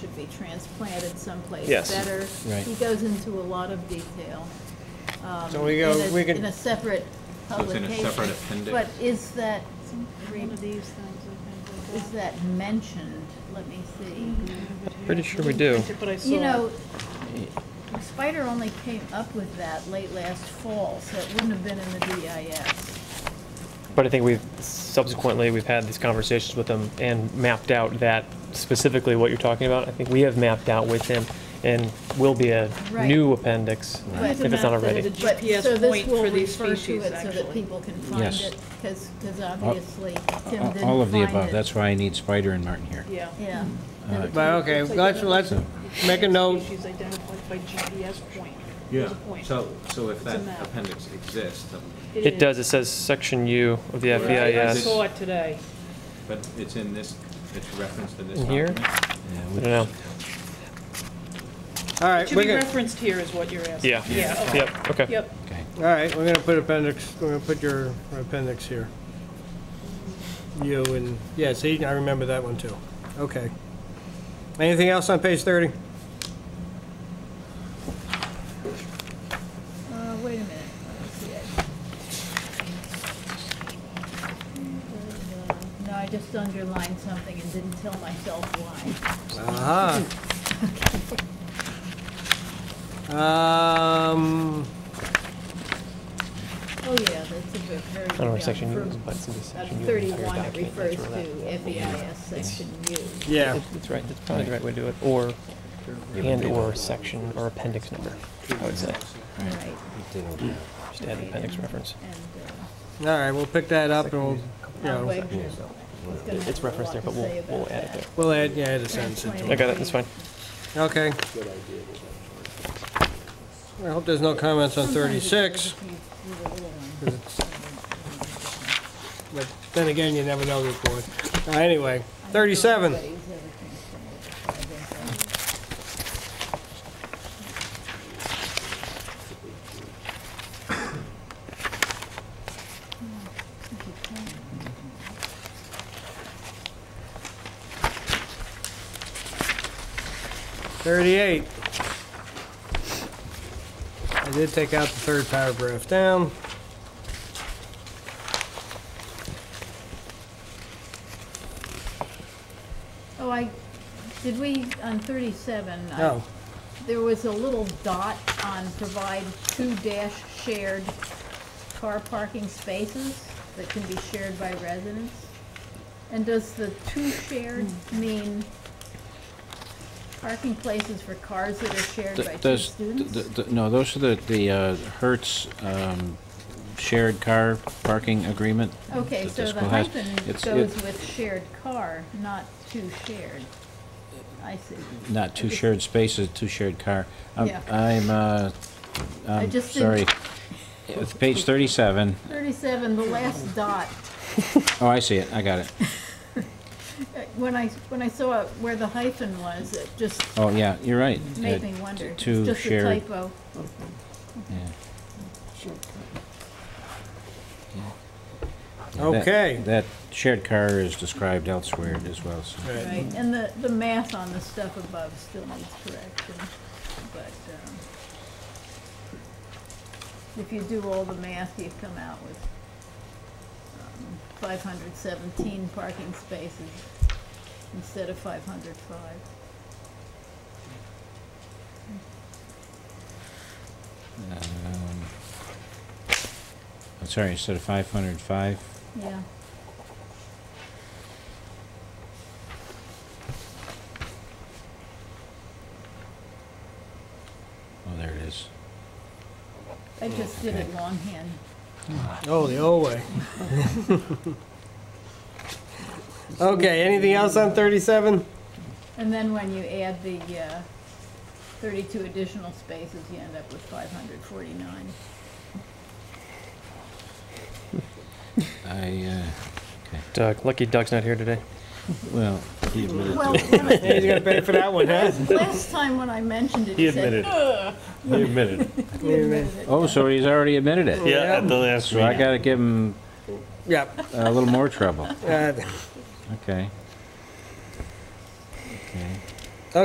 be transplanted someplace Yes. better. Right. He goes into a lot of detail. um, So we go- in a- we can- In a separate So it's in a publication. separate appendix? But is that, One of these things, I is think, like that mentioned? Let me see. Mm-hmm. Pretty sure we do. that. But I You saw, know, it. Spider only came up with that late last fall, so it wouldn't have been in the DIS. But I think we've, subsequently, we've had these conversations with him and mapped out that specifically what you're talking about. I think we have mapped out with him and will be a Right. new appendix Right. if it's not already. The GPS But, point for these species, so this will refer to it so that actually. people can find Yes. it, because, obviously Tim didn't find it. All of the above, that's why I need Spider and Martin here. yeah. Yeah. But okay, let's, let's make a note. Species identified by GPS point. Yeah, There's a point. so, so if that map. appendix exists, um, then- It does, it says section U of the E is. Right, I FEIS. saw it today. but it's in this, it's referenced in this In here? document? Yeah, I we- don't know. All It right, should we're be gonna, referenced here is what you're asking. Yeah. Yeah, okay. Yep, okay. Yep. Okay. all right, we're gonna put appendix, we're gonna put your appendix here. You and, yeah, see, I remember that one too. Okay. Anything else on page 30? Uh, wait a minute, let's see it. No, I just underlined something and didn't tell myself why. Aha. Um, Oh, yeah, that's a bit very. I don't know what section yeah, U for- is, but it's in the uh, section U. of the entire Thirty-one, it document. That's refers where that- to FEIS section U. yeah, It- It's right, that's probably the right way to do it, or, and/or section or appendix number, I would say. Right. Just add the appendix reference. And, uh, all right, we'll pick that up and we'll, you I'll know, wait. He's gonna have It's a lot referenced there, to but we'll, say about we'll add that. it there. we'll add, yeah, add a sentence into I it. got it, that's fine. Okay. I hope there's no comments on 36, but then again, you never know with board. Uh, Anyway, 37. Thirty-eight. I did take out the third paragraph down. Oh, I, did we, on thirty-seven? I- Oh, There was a little dot on provide two dash shared car parking spaces that can be shared by residents. And does the two shared Hmm. mean parking places for cars that are shared Th- by two Those, students? th- th- no, those are the, the uh, Hertz um, shared car parking agreement. Oh. Okay, that so this the school has. hyphen It's- goes it- with shared car, not two shared. I see. Not two shared spaces, two shared car. Um, Yeah. I'm, uh, I I'm just sorry. didn't- It's page 37. Thirty-seven, the last dot. Oh, I see it, I got it. Uh, When I, when I saw where the hyphen was, it just Oh, yeah, you're right. made Uh, me wonder. It's two just a shared- typo. yeah. That- okay. That shared car is described elsewhere as well, so. All right. Right, and the, the math on the stuff above still needs correction, but, um, if you do all the math, you come out with um, five hundred seventeen parking spaces instead of five hundred five. Um, I'm sorry, instead of 505, Yeah, oh, there it is. I just did it Okay. longhand. Oh, the old way. Okay, anything else on 37? And then when you add the, uh, thirty-two additional spaces, you end up with five hundred forty-nine. I, uh, Doug, lucky Doug's not here today. well, he admitted Well, to it. when I- Yeah, He's gonna pay for that one, huh? last time when I mentioned it, you said, He admitted. "You admitted it." Oh, so he's already admitted it. Yeah, at the last So I meeting. gotta give him Yep. a little more trouble. uh, Okay. Okay.